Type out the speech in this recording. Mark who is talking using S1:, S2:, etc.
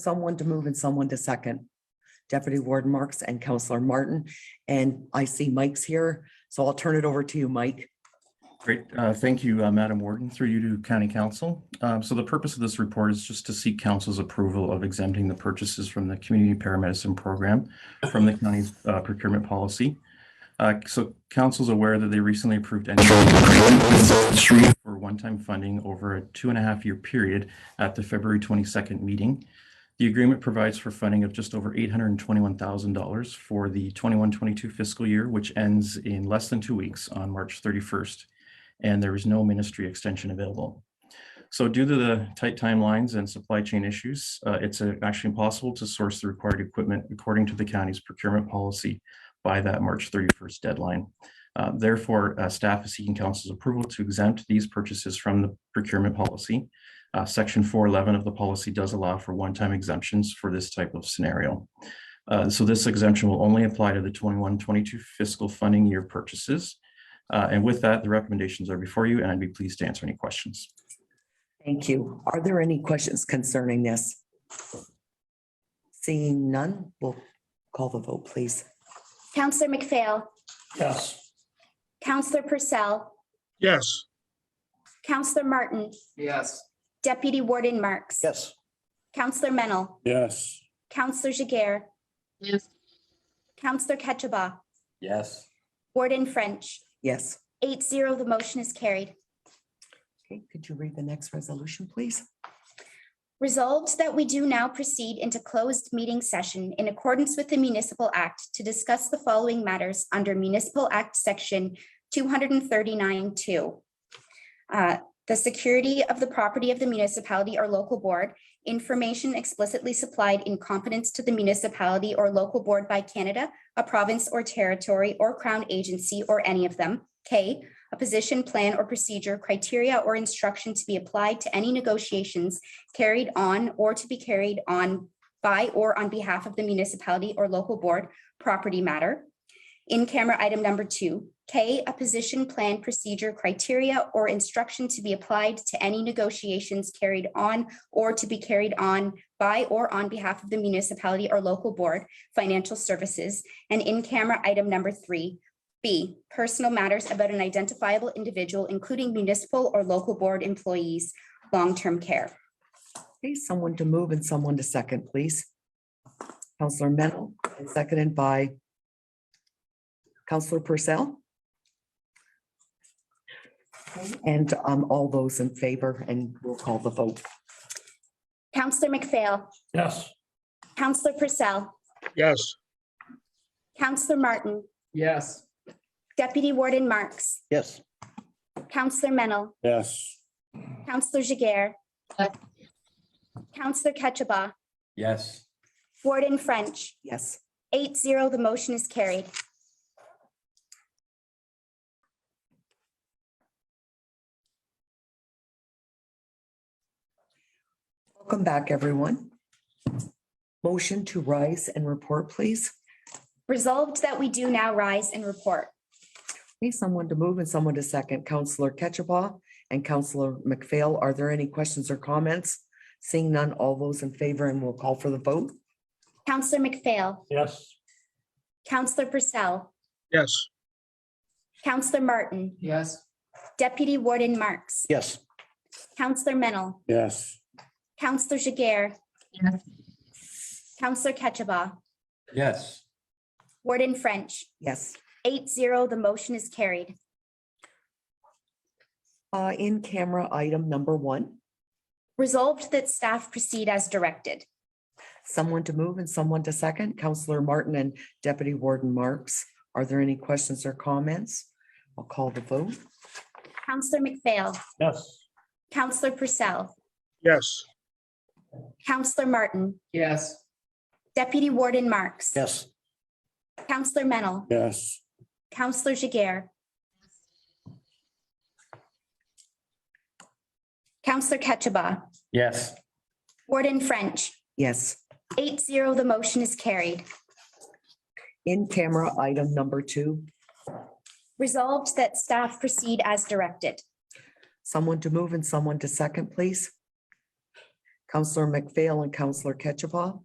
S1: someone to move and someone to second. Deputy Warden Marks and Counselor Martin, and I see Mike's here, so I'll turn it over to you, Mike.
S2: Great. Uh, Thank you, uh, Madam Warden, through you to County Council. Um, So the purpose of this report is just to seek council's approval of exempting the purchases from the Community Paramedicine Program from the county's uh, procurement policy. Uh, So council's aware that they recently approved any for one-time funding over a two and a half year period at the February 22nd meeting. The agreement provides for funding of just over $821,000 for the 21-22 fiscal year, which ends in less than two weeks on March 31st and there is no ministry extension available. So due to the tight timelines and supply chain issues, uh, it's uh, actually impossible to source the required equipment according to the county's procurement policy by that March 31st deadline. Uh, Therefore, uh, staff is seeking council's approval to exempt these purchases from the procurement policy. Uh, Section 411 of the policy does allow for one-time exemptions for this type of scenario. Uh, So this exemption will only apply to the 21-22 fiscal funding year purchases. Uh, And with that, the recommendations are before you, and I'd be pleased to answer any questions.
S1: Thank you. Are there any questions concerning this? Seeing none, we'll call the vote, please.
S3: Counselor McPhail.
S4: Yes.
S3: Counselor Purcell.
S4: Yes.
S3: Counselor Martin.
S5: Yes.
S3: Deputy Warden Marks.
S4: Yes.
S3: Counselor Mennel.
S4: Yes.
S3: Counselor Jager.
S5: Yes.
S3: Counselor Ketchabah.
S4: Yes.
S3: Warden French.
S1: Yes.
S3: Eight zero, the motion is carried.
S1: Okay, could you read the next resolution, please?
S3: Resolved that we do now proceed into closed meeting session in accordance with the Municipal Act to discuss the following matters under Municipal Act Section 239-2. Uh, The security of the property of the municipality or local board, information explicitly supplied in confidence to the municipality or local board by Canada, a province or territory or crown agency or any of them. K, a position, plan, or procedure, criteria, or instruction to be applied to any negotiations carried on or to be carried on by or on behalf of the municipality or local board property matter. In camera item number two, K, a position plan procedure criteria or instruction to be applied to any negotiations carried on or to be carried on by or on behalf of the municipality or local board financial services. And in camera item number three, B, personal matters about an identifiable individual, including municipal or local board employees, long-term care.
S1: Okay, someone to move and someone to second, please. Counselor Mennel, and seconded by Counselor Purcell. And um, all those in favor, and we'll call the vote.
S3: Counselor McPhail.
S4: Yes.
S3: Counselor Purcell.
S4: Yes.
S3: Counselor Martin.
S5: Yes.
S3: Deputy Warden Marks.
S4: Yes.
S3: Counselor Mennel.
S4: Yes.
S3: Counselor Jager.
S5: Yes.
S3: Counselor Ketchabah.
S4: Yes.
S3: Warden French.
S1: Yes.
S3: Eight zero, the motion is carried.
S1: Welcome back, everyone. Motion to rise and report, please.
S3: Resolved that we do now rise and report.
S1: Need someone to move and someone to second. Counselor Ketchabah and Counselor McPhail, are there any questions or comments? Seeing none, all those in favor, and we'll call for the vote.
S3: Counselor McPhail.
S4: Yes.
S3: Counselor Purcell.
S4: Yes.
S3: Counselor Martin.
S5: Yes.
S3: Deputy Warden Marks.
S4: Yes.
S3: Counselor Mennel.
S4: Yes.
S3: Counselor Jager.
S5: Yes.
S3: Counselor Ketchabah.
S4: Yes.
S3: Warden French.
S1: Yes.
S3: Eight zero, the motion is carried.
S1: Uh, in camera item number one,
S3: Resolved that staff proceed as directed.
S1: someone to move and someone to second. Counselor Martin and Deputy Warden Marks, are there any questions or comments? I'll call the vote.
S3: Counselor McPhail,
S4: Yes.
S3: Counselor Purcell,
S4: Yes.
S3: Counselor Martin,
S5: Yes.
S3: Deputy Warden Marks.
S4: Yes.
S3: Counselor Mennel,
S4: Yes.
S3: Counselor Jager. Counselor Ketchabah,
S4: Yes.
S3: Warden French,
S1: Yes.
S3: eight zero, the motion is carried.
S1: In camera item number two,
S3: Resolved that staff proceed as directed.
S1: someone to move and someone to second, please. Counselor McPhail and Counselor Ketchafah.